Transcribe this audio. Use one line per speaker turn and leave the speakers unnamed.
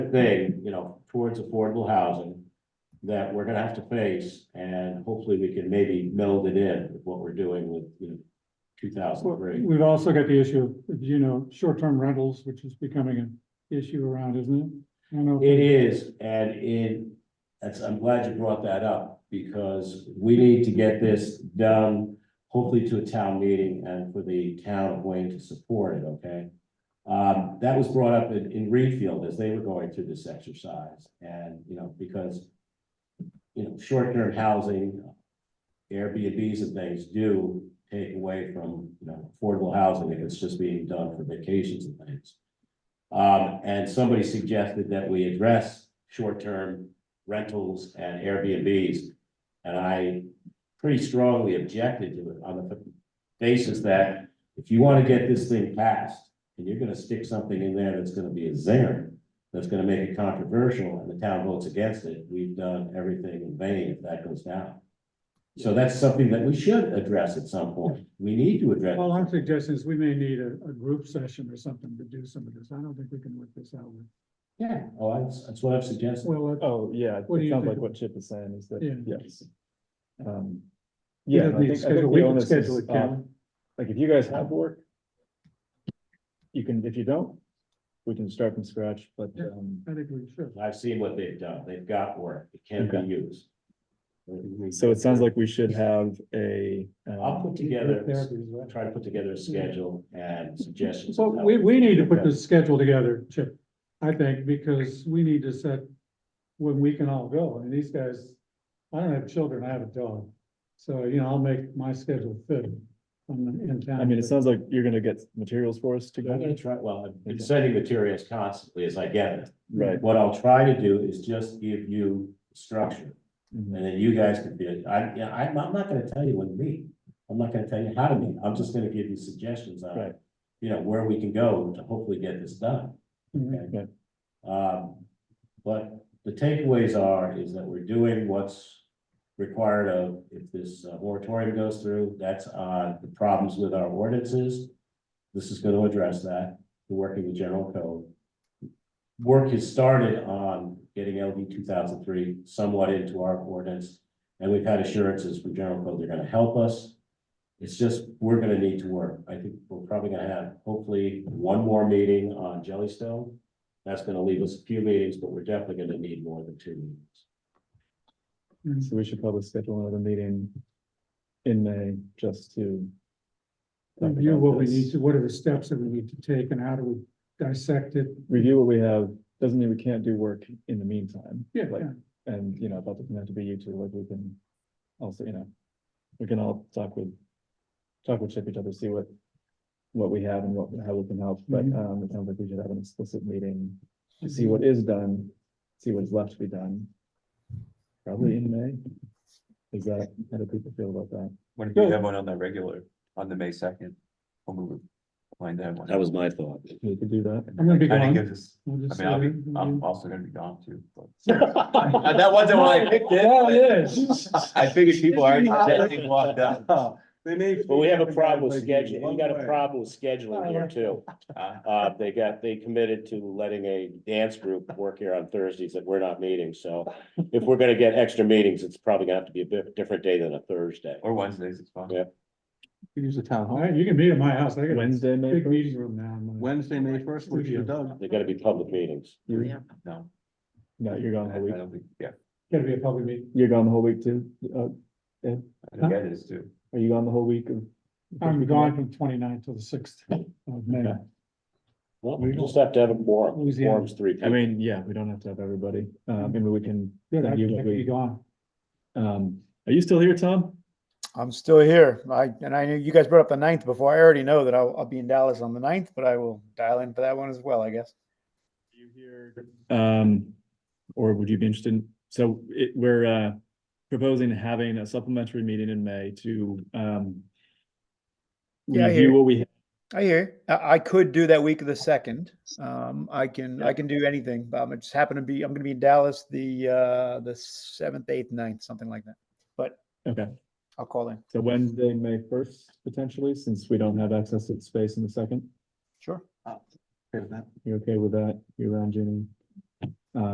thing, you know, towards affordable housing that we're gonna have to face, and hopefully we can maybe meld it in with what we're doing with, you know, two thousand three.
We've also got the issue of, you know, short-term rentals, which is becoming an issue around, isn't it? I don't know.
It is, and it, that's, I'm glad you brought that up, because we need to get this done, hopefully to a town meeting and for the town of Wayne to support it, okay? Um, that was brought up in, in Reedfield as they were going through this exercise, and, you know, because you know, short-term housing, Airbnbs and things do take away from, you know, affordable housing if it's just being done for vacations and things. Um, and somebody suggested that we address short-term rentals and Airbnbs. And I pretty strongly objected to it on the basis that if you want to get this thing passed and you're gonna stick something in there that's gonna be a zinger, that's gonna make it controversial and the town votes against it, we've done everything in vain if that goes down. So that's something that we should address at some point. We need to address.
All I'm suggesting is we may need a, a group session or something to do some of this. I don't think we can work this out. with-
Yeah, oh, that's, that's what I've suggested.
Well, uh,
Oh, yeah,
What do
it
you
sounds
think?
like what Chip is saying is that,
Yeah.
yes. Um,
you
Yeah,
know,
and I
the
think, I
schedule-
think
we
the
can
onus
schedule
is,
it,
uh,
Karen.
like, if you guys have work. You can, if you don't, we can start from scratch, but,
Yeah.
um,
I think we should.
I've seen what they've done. They've got work. It can be
Okay.
used.
so it sounds like we should have a. um,
I'll put together,
Group therapy is what-
try to put together a schedule and suggestions.
So we, we need to put this schedule together, Chip, I think, because we need to set when we can all go. I mean, these guys, I don't have children, I have a dog. So, you know, I'll make my schedule fit on the, in town.
I mean, it sounds like you're gonna get materials for us
I'm gonna
together,
try, well, I've been sending materials constantly as I get it.
right?
What I'll try to do is just give you structure
Mhm.
and then you guys can do it. I, yeah, I'm, I'm not gonna tell you what to meet. I'm not gonna tell you how to meet. I'm just gonna give you suggestions on,
Right.
you know, where we can go to hopefully get this done.
Mhm.
Okay. Um, but the takeaways are, is that we're doing what's required of, if this uh, moratorium goes through, that's on the problems with our ordinances. This is gonna address that, the working the general code. Work has started on getting LD two thousand three somewhat into our ordinance, and we've had assurances from general code, they're gonna help us. It's just, we're gonna need to work. I think we're probably gonna have hopefully one more meeting on Jellystone. That's gonna leave us a few meetings, but we're definitely gonna need more than two meetings.
So we should probably schedule another meeting in May just to. talk
Review
about
what we
this.
need to, what are the steps that we need to take and how do we dissect it?
Review what we have, doesn't mean we can't do work in the meantime.
Yeah,
Like,
yeah.
And, you know, that doesn't have to be you two, like we can also, you know, we can all talk with, talk with each other, see what, what we have and what, how we can help, but,
Mhm.
um, it sounds like we should have an explicit meeting to see what is done, see what's left to be done. Probably in May. Is that, how do people feel about that?
What if you
Good.
have one on the regular, on the May second? When we were planning to have one.
was my thought.
We could do that.
I'm gonna be
Kind
gone.
of gives us,
We'll
I
just
mean, I'll
say-
be, I'm also gonna be gone too. but-
That
That wasn't what I picked it.
Yeah, it is.
I figured people already said they walked out.
But we have a problem with scheduling, we got a problem with scheduling here too.
Uh,
Uh, they got, they committed to letting a dance group work here on Thursdays that we're not meeting, so if we're gonna get extra meetings, it's probably gonna have to be a bit different day than a Thursday.
Or Wednesdays, it's fine.
Yeah.
Use the town
All
hall.
right, you can meet at my house. I got a
Wednesday, May
big
first.
meeting room now. I'm gonna-
Wednesday, May first, which is Doug.
They're gonna be public meetings.
You-
No,
No, you're
I
gone the
I
whole week.
don't think, yeah,
Gotta be a public meeting.
You're gone the whole week too? Uh,
I think that is too.
are you gone the whole week of?
I'm gone from 29th till the sixth of May.
Well, we just have to have a quorum,
Louisiana.
quorum's three.
I mean, yeah, we don't have to have everybody. Um, maybe we can,
Good, I
Then
I
you
could
agree.
be gone.
um, are you still here, Tom?
I'm still here. I, and I knew you guys brought up the ninth before. I already know that I'll, I'll be in Dallas on the ninth, but I will dial in for that one as well, I guess.
You here. Um, or would you be interested in, so it, we're, uh, proposing having a supplementary meeting in May to, um,
Yeah, I
review
hear.
what we have.
I hear. you. I, I could do that week of the second. Um, I can, I can do anything. Um, I just happen to be, I'm gonna be in Dallas the, uh, the seventh, eighth, ninth, something like that. But
Okay,
I'll call in.
so Wednesday, May first, potentially, since we don't have access to space in the second.
Sure.
Okay with that.
You okay with that? You around, Jenny?